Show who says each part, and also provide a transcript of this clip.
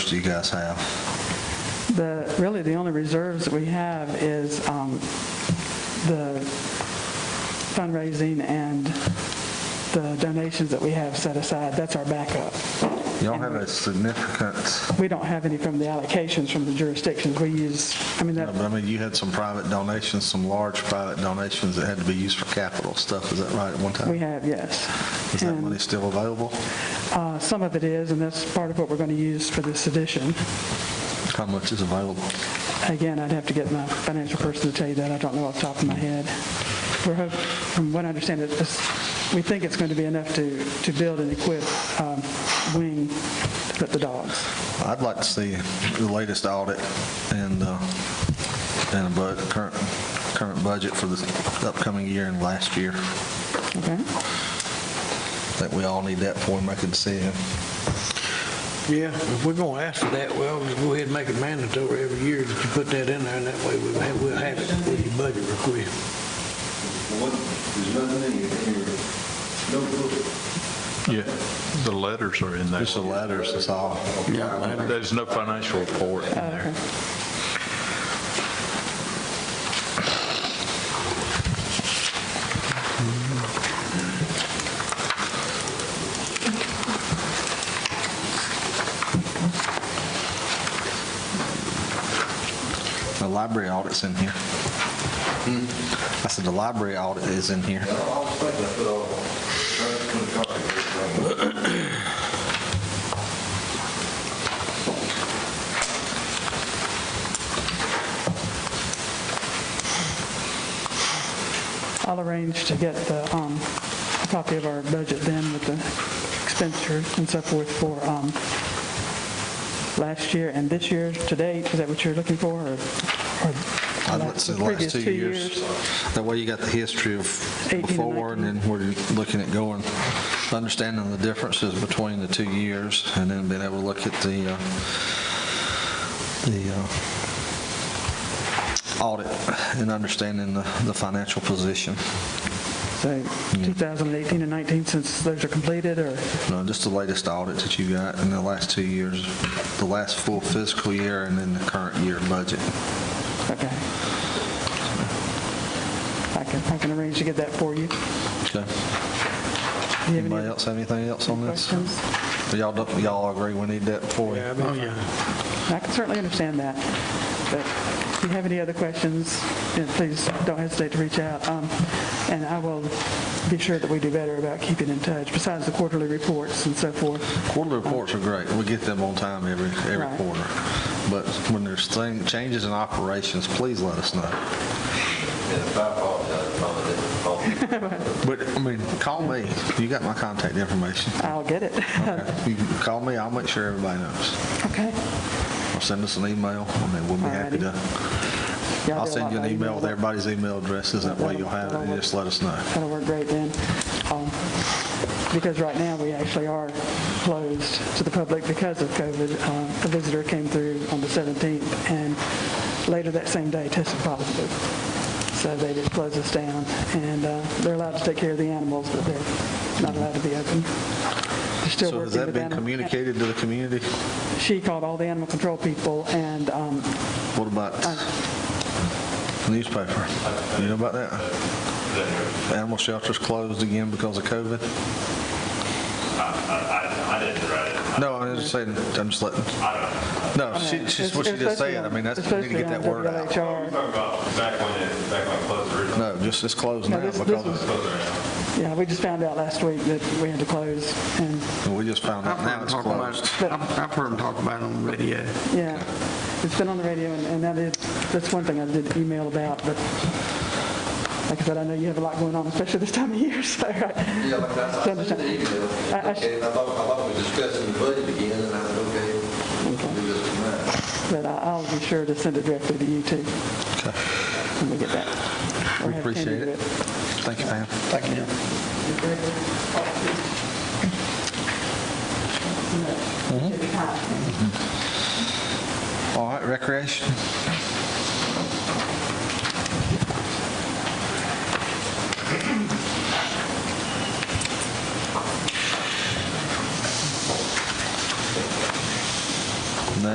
Speaker 1: do you guys have?
Speaker 2: The, really, the only reserves that we have is um, the fundraising and the donations that we have set aside. That's our backup.
Speaker 1: Y'all have a significant,
Speaker 2: We don't have any from the allocations from the jurisdictions. We use, I mean,
Speaker 1: but
Speaker 2: that,
Speaker 1: I mean, you had some private donations, some large private donations that had to be used for capital stuff, is that right, at one
Speaker 2: we
Speaker 1: time?
Speaker 2: have, yes.
Speaker 1: Is that
Speaker 2: And,
Speaker 1: money still available?
Speaker 2: uh, Some of it is, and that's part of what we're going to use for this edition.
Speaker 1: How much is available?
Speaker 2: Again, I'd have to get my financial person to tell you that. I don't know off the top of my head. We're hoping, from what I understand, it, this- we think it's going to be enough to, to build and equip um, wing to put the dogs.
Speaker 1: I'd like to see the latest audit and, uh, and a bud, current, current budget for the upcoming year and last year. I
Speaker 2: Okay?
Speaker 1: think we all need that before we make a decision.
Speaker 3: Yeah, if we're gonna ask for that, well, just go ahead and make it mandatory every year that you put that in there, and that way we'll have, we'll have it with your budget request.
Speaker 4: What, there's nothing in here, no book.
Speaker 5: Yeah, the letters are in there.
Speaker 1: Just the letters, that's all.
Speaker 5: And There's no financial report in there.
Speaker 1: The library audit's in here. I said the library audit is in here.
Speaker 4: I always think I put all, trying to put a copy of this thing.
Speaker 2: I'll arrange to get the, um, a copy of our budget then with the expenditure and so forth for, um, last year and this year to date. Is that what you're looking for, or?
Speaker 1: I'd like to see the last
Speaker 2: Previous
Speaker 1: two
Speaker 2: two
Speaker 1: years. That way you got the history of
Speaker 2: 18 and
Speaker 1: before, and then we're looking at going, understanding the differences between the two years, and then being able to look at the, uh, the uh, audit and understanding the the financial position.
Speaker 2: So 2018 and 19, since those are completed, or?
Speaker 1: No, just the latest audit that you got in the last two years, the last full fiscal year, and then the current year budget.
Speaker 2: Okay. I can, I can arrange to get that for you. Do
Speaker 1: Okay.
Speaker 2: you have
Speaker 1: Anybody
Speaker 2: any
Speaker 1: else have anything else on this?
Speaker 2: questions?
Speaker 1: Y'all, don't- y'all agree we need that before we?
Speaker 3: Oh, yeah.
Speaker 2: I can certainly understand that. But if you have any other questions, then please don't hesitate to reach out. Um, And I will be sure that we do better about keeping in touch, besides the quarterly reports and so forth.
Speaker 1: Quarterly reports are great. We get them on time every, every
Speaker 2: Right.
Speaker 1: quarter. But when there's thing, changes in operations, please let us know.
Speaker 4: And if I apologize, probably didn't call you.
Speaker 1: But, I mean, call me. You got my contact information.
Speaker 2: I'll get it.
Speaker 1: You can call me, I'll make sure everybody knows.
Speaker 2: Okay.
Speaker 1: Or send us an email, I mean, we'll be happy to.
Speaker 2: Y'all
Speaker 1: I'll
Speaker 2: do a
Speaker 1: send
Speaker 2: lot
Speaker 1: you an
Speaker 2: by
Speaker 1: email with
Speaker 2: though.
Speaker 1: everybody's email addresses, that way you'll have it, and just let us know.
Speaker 2: That'll work great then. Um, Because right now, we actually are closed to the public because of COVID. Uh, A visitor came through on the 17th and later that same day tested positive. So they just closed us down and uh, they're allowed to take care of the animals, but they're not allowed to be open. They're still
Speaker 1: So has
Speaker 2: working
Speaker 1: that
Speaker 2: with
Speaker 1: been
Speaker 2: animal-
Speaker 1: communicated to the community?
Speaker 2: She called all the animal control people and um,
Speaker 1: What about newspaper? You know about that? Animal shelters closed again because of COVID?
Speaker 6: I didn't write it.
Speaker 1: No, I'm just saying, I'm just letting, no, she, she's
Speaker 2: it's-
Speaker 1: what she just
Speaker 2: it's supposed to be
Speaker 1: said. I
Speaker 2: on-
Speaker 1: mean, that's,
Speaker 2: it's
Speaker 1: we need to get that
Speaker 2: supposed to be on
Speaker 1: word out.
Speaker 2: WHR.
Speaker 6: Talking about back when it, back when it closed originally.
Speaker 1: No, just, it's closed
Speaker 2: No,
Speaker 1: now
Speaker 2: this- this
Speaker 1: because
Speaker 6: Closed around.
Speaker 2: Yeah, we just found out last week that we had to close and
Speaker 1: we just found
Speaker 3: I've
Speaker 1: out
Speaker 3: heard
Speaker 1: now
Speaker 3: them
Speaker 1: it's
Speaker 3: talk about
Speaker 1: closed.
Speaker 3: it, I've I've heard them talk about it on the radio.
Speaker 2: Yeah, it's been on the radio, and and that is, that's one thing I did email about, but like I said, I know you have a lot going on, especially this time of year, so. I-
Speaker 4: Yeah, like I, I sent the email,
Speaker 2: I- I-
Speaker 4: okay, and I thought, I thought we were discussing the budget again, and I said, okay, we'll do this tonight.
Speaker 2: But I- I'll be sure to send it directly to you, too. When we get that. Or
Speaker 1: We
Speaker 2: have Candy
Speaker 1: appreciate
Speaker 2: do
Speaker 1: it. Thank you, Pam.
Speaker 3: Thank you.
Speaker 1: All right, Mm-hmm. recreation?